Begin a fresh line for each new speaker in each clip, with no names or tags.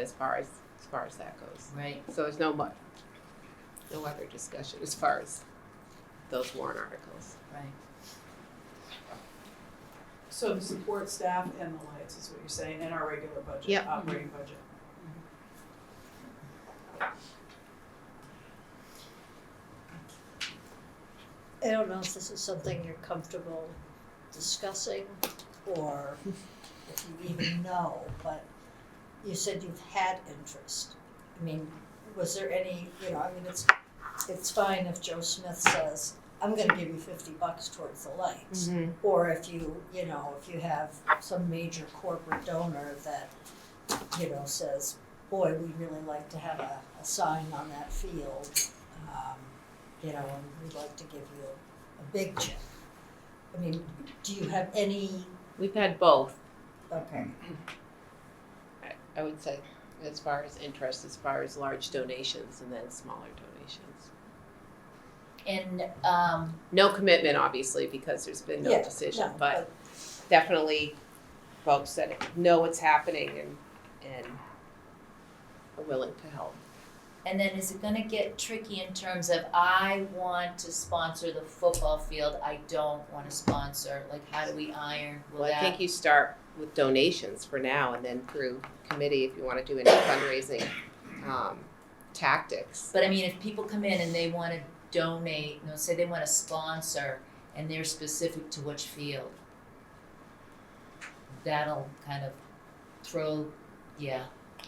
as far as, as far as that goes.
Right.
So there's no mu- no other discussion as far as those warrant articles.
Right.
So to support staff and the lights is what you're saying, in our regular budget,
Yep.
operating budget.
I don't know if this is something you're comfortable discussing or if you even know, but you said you've had interest. I mean, was there any, you know, I mean, it's, it's fine if Joe Smith says, I'm gonna give you fifty bucks towards the lights. Or if you, you know, if you have some major corporate donor that, you know, says, boy, we'd really like to have a, a sign on that field. Um, you know, and we'd like to give you a big check. I mean, do you have any,
We've had both,
okay,
I, I would say, as far as interest, as far as large donations and then smaller donations.
And um,
No commitment, obviously, because there's been no
Yeah,
decision,
no,
but definitely folks that know what's happening and, and are willing to help.
and then is it gonna get tricky in terms of I want to sponsor the football field, I don't wanna sponsor, like how do we iron, will
Well, I
that?
think you start with donations for now and then through committee if you wanna do any fundraising, um, tactics.
But I mean, if people come in and they wanna donate, you know, say they wanna sponsor and they're specific to which field. That'll kind of throw, yeah,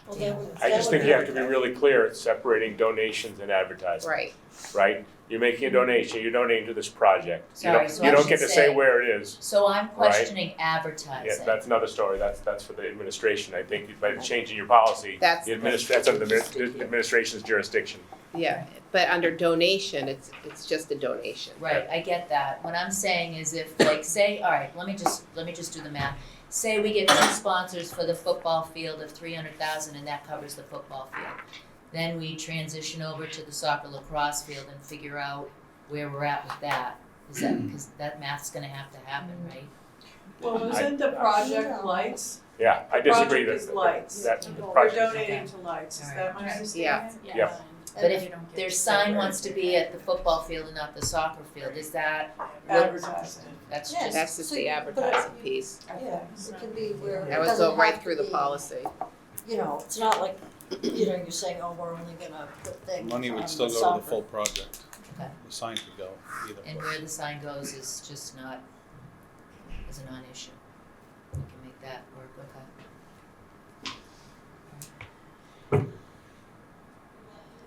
well, that would,
I
that
just think
would
you have to be really clear at separating donations and advertising,
Right,
right? You're making a donation, you're donating to this project. You
Sorry,
don't,
so
you
I
don't
should
get to
say-
say where it is.
so I'm
Right.
questioning advertising.
Yeah, that's another story. That's, that's for the administration. I think by changing your policy,
that's,
the adminis- that's under the admi- administration's jurisdiction.
yeah, but under donation, it's, it's just a donation.
Right, I get that. What I'm saying is if like, say, all right, let me just, let me just do the math. Say we get two sponsors for the football field of three hundred thousand and that covers the football field. Then we transition over to the soccer lacrosse field and figure out where we're at with that. Is that, cause that math's gonna have to happen, right?
Well, wasn't the project lights,
Yeah, I
The
disagree
project
that,
is lights.
that, that
we're
project,
donating to lights, is that my understanding?
Yeah. Yeah.
But if their sign wants to be at the football field and not the soccer field, is that,
Advertising,
that's
Yeah.
just,
That's just the advertising piece.
Yeah, it can be where it
That was
doesn't
go right
have to
through the
be-
policy.
You know, it's not like, you know, you're saying, oh, we're only gonna put things
Money
on
would still
um, the
go to the
soccer."
full project.
Okay.
The sign could go either
and
way.
where the sign goes is just not, is a non-issue. We can make that work, okay?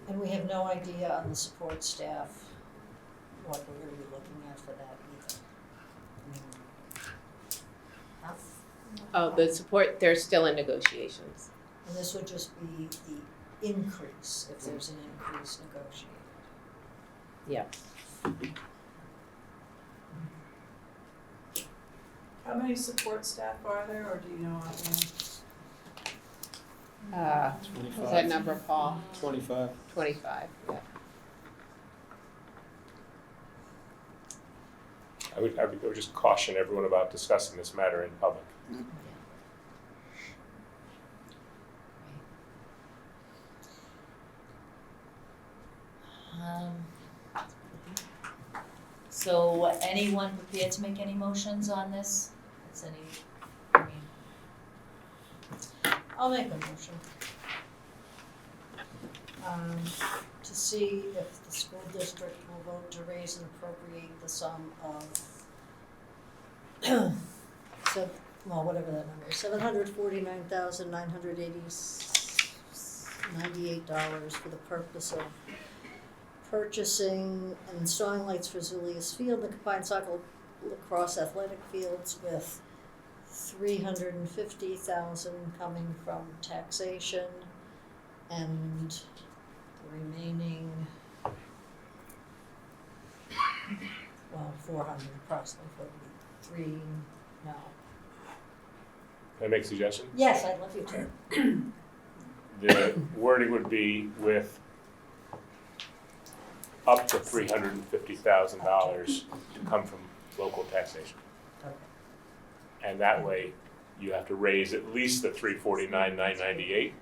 And we have no idea on the support staff, what we're gonna be looking at for that either. I mean, that's-
Oh, the support, they're still in negotiations.
And this would just be the increase, if there's an increase negotiated.
how many support staff are there, or do you know offhand?
Uh, was that
Twenty-five.
number, Paul?
Twenty-five.
Twenty-five, yeah.
I would, I would I would just caution everyone about discussing this matter in public.
Um, So anyone prepared to make any motions on this? Is any, I mean,
I'll make a motion. Um, to see if the school district will vote to raise and appropriate the sum of sev- well, whatever that number, seven hundred forty-nine thousand nine hundred eighty, ninety-eight dollars for the purpose of purchasing and installing lights for Zulius Field, the combined soccer lacrosse athletic fields with three hundred and fifty thousand coming from taxation and the remaining well, four hundred approximately, what would be three, no,
Can I make a suggestion?
yes, I'd love you to,
The wording would be with up to three hundred and fifty thousand dollars to come from local taxation.
Okay.
And that way, you have to raise at least the three forty-nine, nine ninety-eight,